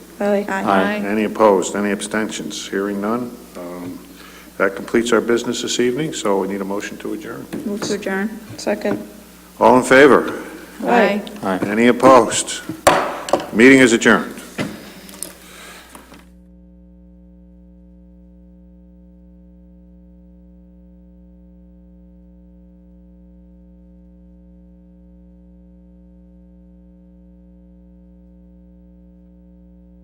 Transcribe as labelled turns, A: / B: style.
A: Aye.
B: Aye.
C: Any opposed? Any abstentions? Hearing none. Um, That completes our business this evening, so we need a motion to adjourn.
A: Move to adjourn.
B: Second.
C: All in favor?
A: Aye.
C: Any opposed? Meeting is adjourned.